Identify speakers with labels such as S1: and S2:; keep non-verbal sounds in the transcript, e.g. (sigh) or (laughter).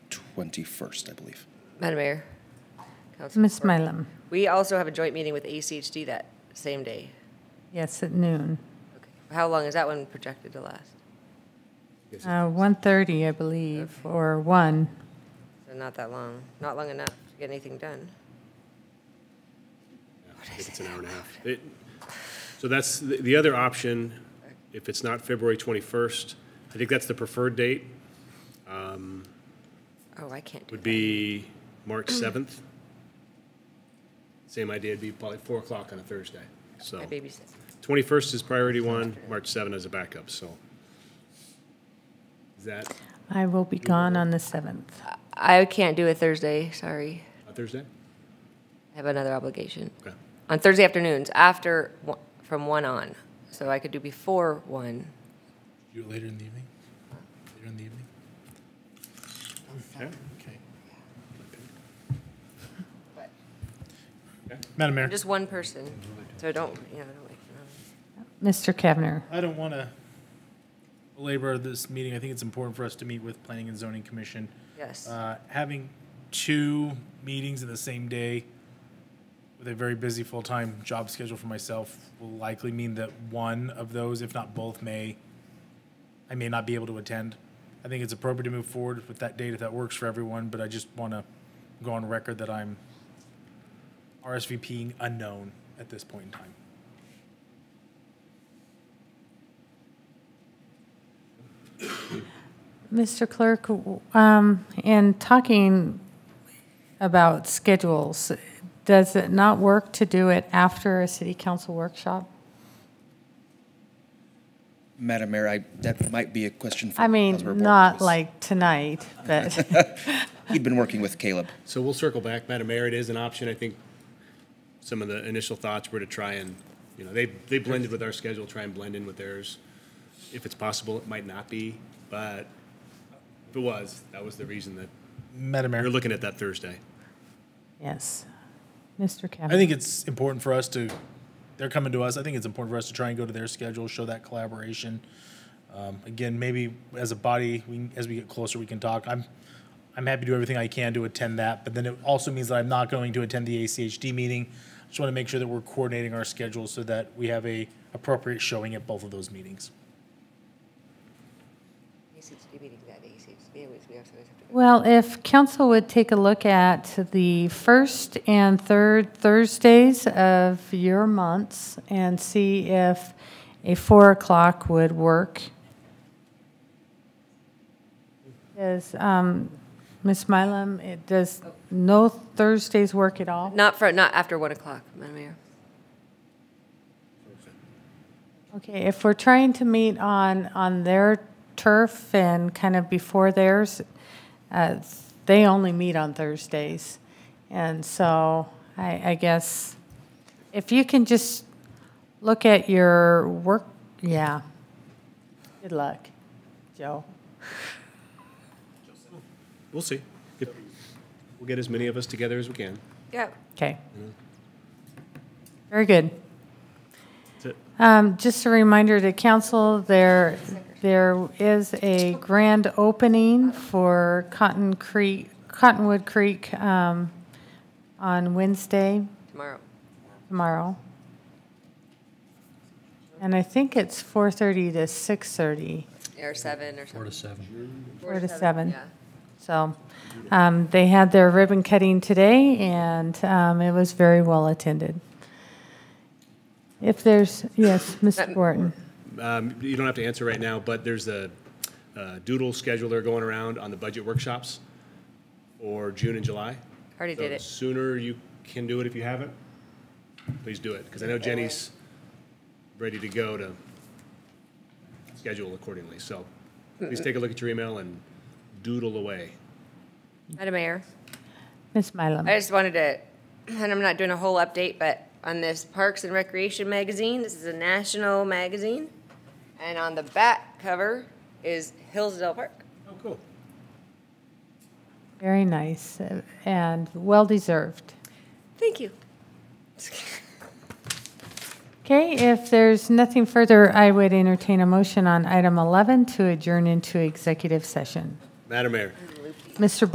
S1: 21st, I believe.
S2: Madam Mayor. Council.
S3: Ms. Mylum,
S2: We also have a joint meeting with ACHD that same day.
S3: yes, at noon.
S2: Okay. How long is that one projected to last?
S3: Uh, 1:30, I believe, or 1.
S2: So not that long, not long enough to get anything done.
S4: I think it's an hour and a half. It- So that's, the the other option, if it's not February 21st, I think that's the preferred date,
S2: Oh, I can't do
S4: would
S2: that.
S4: be March 7th. Same idea, it'd be probably 4 o'clock on a Thursday. So
S2: I babysit.
S4: 21st is priority one, March 7th is a backup, so. Is that
S3: I will be gone on the 7th.
S2: I can't do a Thursday, sorry.
S4: a Thursday?
S2: I have another obligation.
S4: Okay.
S2: On Thursday afternoons, after, one- from 1 on. So I could do before 1.
S5: Do it later in the evening? Later in the evening? Okay. Madam
S2: I'm
S5: Mayor,
S2: just one person, so I don't, you know, I don't like, um,
S3: Mr. Kavner,
S5: I don't want to belabor this meeting. I think it's important for us to meet with Planning and Zoning Commission.
S2: yes.
S5: Uh, Having two meetings in the same day with a very busy full-time job schedule for myself will likely mean that one of those, if not both, may, I may not be able to attend. I think it's appropriate to move forward with that date if that works for everyone, but I just want to go on record that I'm RSVPing unknown at this point in time.
S3: Mr. Clerk, w- um, in talking about schedules, does it not work to do it after a city council workshop?
S1: Madam Mayor, I, that might be a question for.
S3: I
S1: Councilmember
S3: mean,
S1: Borges.
S3: not like tonight, but (laughs)
S1: He'd been working with Caleb.
S4: So we'll circle back, Madam Mayor, it is an option, I think some of the initial thoughts were to try and, you know, they, they blended with our schedule, try and blend in with theirs. If it's possible, it might not be, but if it was, that was the reason that,
S5: Madam Mayor.
S4: we're looking at that Thursday.
S3: yes. Mr.
S5: I
S3: Kavner,
S5: think it's important for us to, they're coming to us. I think it's important for us to try and go to their schedule, show that collaboration. Um, again, maybe as a body, we, as we get closer, we can talk. I'm, I'm happy to do everything I can to attend that, but then it also means that I'm not going to attend the ACHD meeting. Just want to make sure that we're coordinating our schedules so that we have a appropriate showing at both of those meetings.
S2: ACHD meeting that, ACHD, always- we also always have to go.
S3: well, if council would take a look at the first and third Thursdays of your months and see if a 4 o'clock would work. Does, um, Ms. Mylum, it does no Thursdays work at all?
S2: Not for, not after 1 o'clock, Madam Mayor.
S3: Okay, if we're trying to meet on, on their turf and kind of before theirs, uh, they only meet on Thursdays. And so I, I guess if you can just look at your work, yeah. Good luck, Joe.
S4: We'll see. If- We'll get as many of us together as we can.
S2: Yeah,
S3: Okay. Very good.
S4: That's it.
S3: Um, Just a reminder to council, there, there is a grand opening for Cotton Creek, Cottonwood Creek um, on Wednesday,
S2: tomorrow.
S3: tomorrow. And I think it's 4:30 to 6:30,
S2: Or 7 or something.
S3: four to seven.
S2: Yeah.
S3: So um, they had their ribbon cutting today, and um, it was very well attended. If there's, yes, Mr. Wharton.
S4: Um, You don't have to answer right now, but there's a uh, doodle scheduler going around on the budget workshops for June and July.
S2: Already
S4: So
S2: did
S4: the
S2: it.
S4: Sooner you can do it if you haven't, please do it, because I know Jenny's ready to go to schedule accordingly. So please take a look at your email and doodle away.
S2: Madam Mayor.
S3: Ms. Mylum.
S2: I just wanted to, (clears throat) and I'm not doing a whole update, but on this Parks and Recreation magazine, this is a national magazine, and on the back cover is Hillsdale Park.
S4: Oh, cool.
S3: Very nice uh, and well-deserved.
S2: Thank you.
S3: Okay, if there's nothing further, I would entertain a motion on item 11 to adjourn into executive session.
S4: Madam Mayor.
S3: Mr.